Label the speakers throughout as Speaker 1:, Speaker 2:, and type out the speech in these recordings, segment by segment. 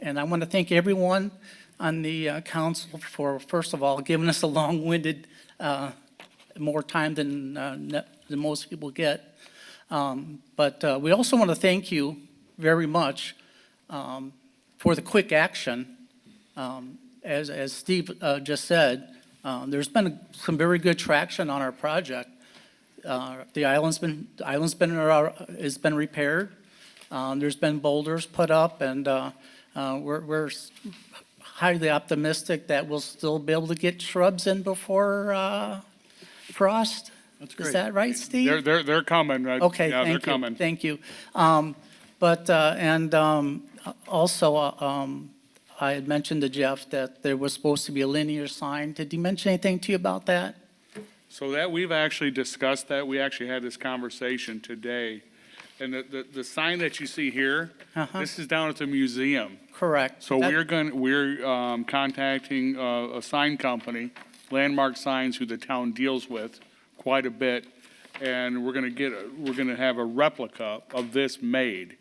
Speaker 1: And I want to thank everyone on the uh, council for, first of all, giving us a long-winded, uh, more time than, uh, ne- than most people get. Um, But uh, we also want to thank you very much um, for the quick action. Um, As, as Steve uh, just said, uh, there's been some very good traction on our project. Uh, The island's been, the island's been, uh, has been repaired. Uh, There's been boulders put up, and uh, uh, we're we're highly optimistic that we'll still be able to get shrubs in before uh, frost.
Speaker 2: That's
Speaker 1: Is
Speaker 2: great.
Speaker 1: that right, Steve?
Speaker 2: They're, they're, they're coming. right?
Speaker 1: Okay,
Speaker 2: Yeah, they're
Speaker 1: thank you,
Speaker 2: coming.
Speaker 1: thank you. Um, But, uh, and um, also, uh, um, I had mentioned to Jeff that there was supposed to be a linear sign. Did he mention anything to you about that?
Speaker 2: So that, we've actually discussed that. We actually had this conversation today. And the, the, the sign that you see here,
Speaker 1: Uh-huh.
Speaker 2: this is down at the museum.
Speaker 1: Correct.
Speaker 2: So
Speaker 1: That-
Speaker 2: we're going, we're um, contacting uh, a sign company, Landmark Signs, who the town deals with quite a bit. And we're going to get, a- we're going to have a replica of this made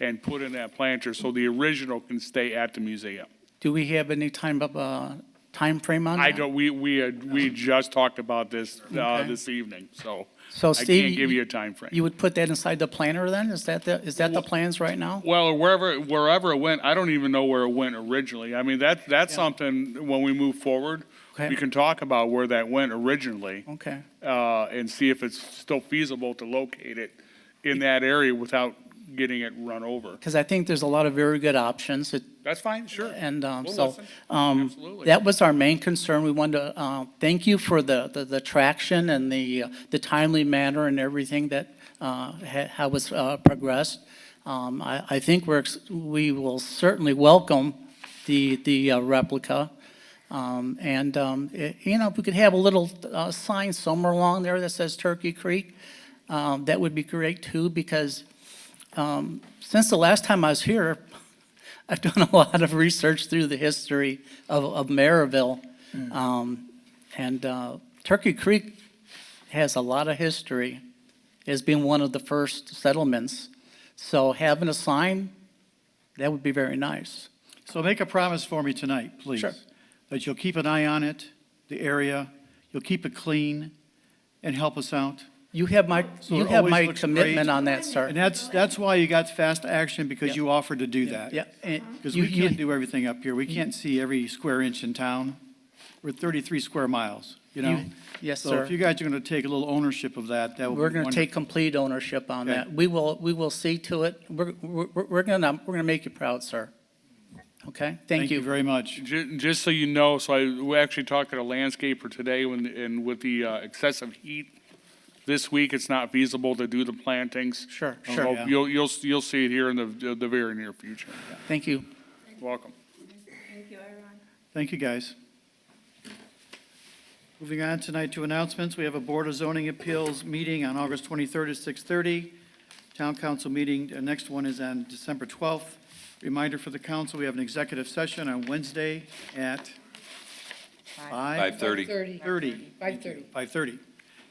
Speaker 2: and put in that planter so the original can stay at the museum.
Speaker 1: Do we have any time of, uh, timeframe on that?
Speaker 2: I don't, we, we, had- we just talked about this, uh,
Speaker 1: Okay.
Speaker 2: this evening, so.
Speaker 1: So
Speaker 2: I
Speaker 1: Steve,
Speaker 2: can't give
Speaker 1: you-
Speaker 2: you a time frame.
Speaker 1: You would put that inside the planner then? Is that the, is that the plans right now?
Speaker 2: Well, wherever, wherever it went, I don't even know where it went originally. I mean, that, that's something, when we move forward,
Speaker 1: Okay.
Speaker 2: we can talk about where that went originally.
Speaker 1: Okay.
Speaker 2: Uh, and see if it's still feasible to locate it in that area without getting it run over.
Speaker 1: Because I think there's a lot of very good options. It-
Speaker 2: That's fine, sure.
Speaker 1: And um,
Speaker 2: We'll
Speaker 1: so,
Speaker 2: listen.
Speaker 1: um,
Speaker 2: Absolutely.
Speaker 1: that was our main concern. We wanted to uh, thank you for the, the- the traction and the, uh, the timely manner and everything that uh, ha- how was uh, progressed. Um, I, I think we're, ex- we will certainly welcome the, the uh, replica. Um, And, um, i- you know, if we could have a little uh, sign somewhere along there that says Turkey Creek, um, that would be great too, because um, since the last time I was here, I've done a lot of research through the history of, of Maryville.
Speaker 3: Mm.
Speaker 1: Um, and uh, Turkey Creek has a lot of history as being one of the first settlements. So having a sign, that would be very nice.
Speaker 3: So make a promise for me tonight, please.
Speaker 1: Sure.
Speaker 3: That you'll keep an eye on it, the area, you'll keep it clean, and help us out.
Speaker 1: You have my,
Speaker 3: So it
Speaker 1: you have
Speaker 3: always
Speaker 1: my
Speaker 3: looks
Speaker 1: commitment
Speaker 3: great.
Speaker 1: on that,
Speaker 3: And
Speaker 1: sir.
Speaker 3: that's, that's why you got fast action, because you offered to do that.
Speaker 1: Yeah. and
Speaker 3: Because
Speaker 1: you-
Speaker 3: Uh-huh. we
Speaker 1: you- Mm-hmm.
Speaker 3: can't do everything up here. We can't see every square inch in town. We're 33 square miles, you know?
Speaker 1: You- yes,
Speaker 3: So
Speaker 1: sir.
Speaker 3: if you guys are going to take a little ownership of that, that would be
Speaker 1: We're going to
Speaker 3: wonderful.
Speaker 1: take complete ownership on
Speaker 3: Okay.
Speaker 1: that. We will, we will see to it. We're, we're, we're going to, we're going to make you proud, sir. Okay? Thank you.
Speaker 3: very much.
Speaker 2: Ju- Just so you know, so I, we actually talked to a landscaper today when, and with the uh, excessive heat this week, it's not feasible to do the plantings.
Speaker 1: Sure,
Speaker 2: So
Speaker 1: sure.
Speaker 3: Yeah.
Speaker 2: You'll, you'll, you'll see it here in the, the very near future.
Speaker 1: Thank you.
Speaker 2: Welcome.
Speaker 4: Thank you, everyone.
Speaker 3: Thank you, guys. Moving on tonight to announcements, we have a Board of Zoning Appeals meeting on August 23rd at 6:30. Town Council meeting, the next one is on December 12th. Reminder for the council, we have an executive session on Wednesday at 5:30.
Speaker 5: 5:30.
Speaker 3: 5:30.
Speaker 4: 5:30.
Speaker 3: 5:30,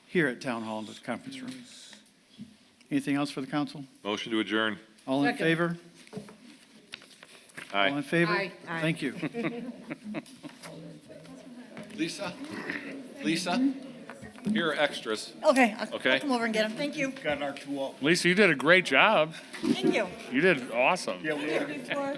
Speaker 3: here at Town Hall in this conference room. Anything else for the council?
Speaker 5: Motion to adjourn.
Speaker 3: All in
Speaker 4: Second.
Speaker 3: favor? All
Speaker 5: Aye.
Speaker 3: in favor?
Speaker 4: Aye. Aye.
Speaker 3: Thank you.
Speaker 5: Lisa? Lisa? Here are extras.
Speaker 6: Okay, I'll-
Speaker 5: Okay.
Speaker 6: I'll come over and get them. Thank you.
Speaker 2: Lisa, you did a great job.
Speaker 6: Thank you.
Speaker 2: You did awesome.
Speaker 6: Before-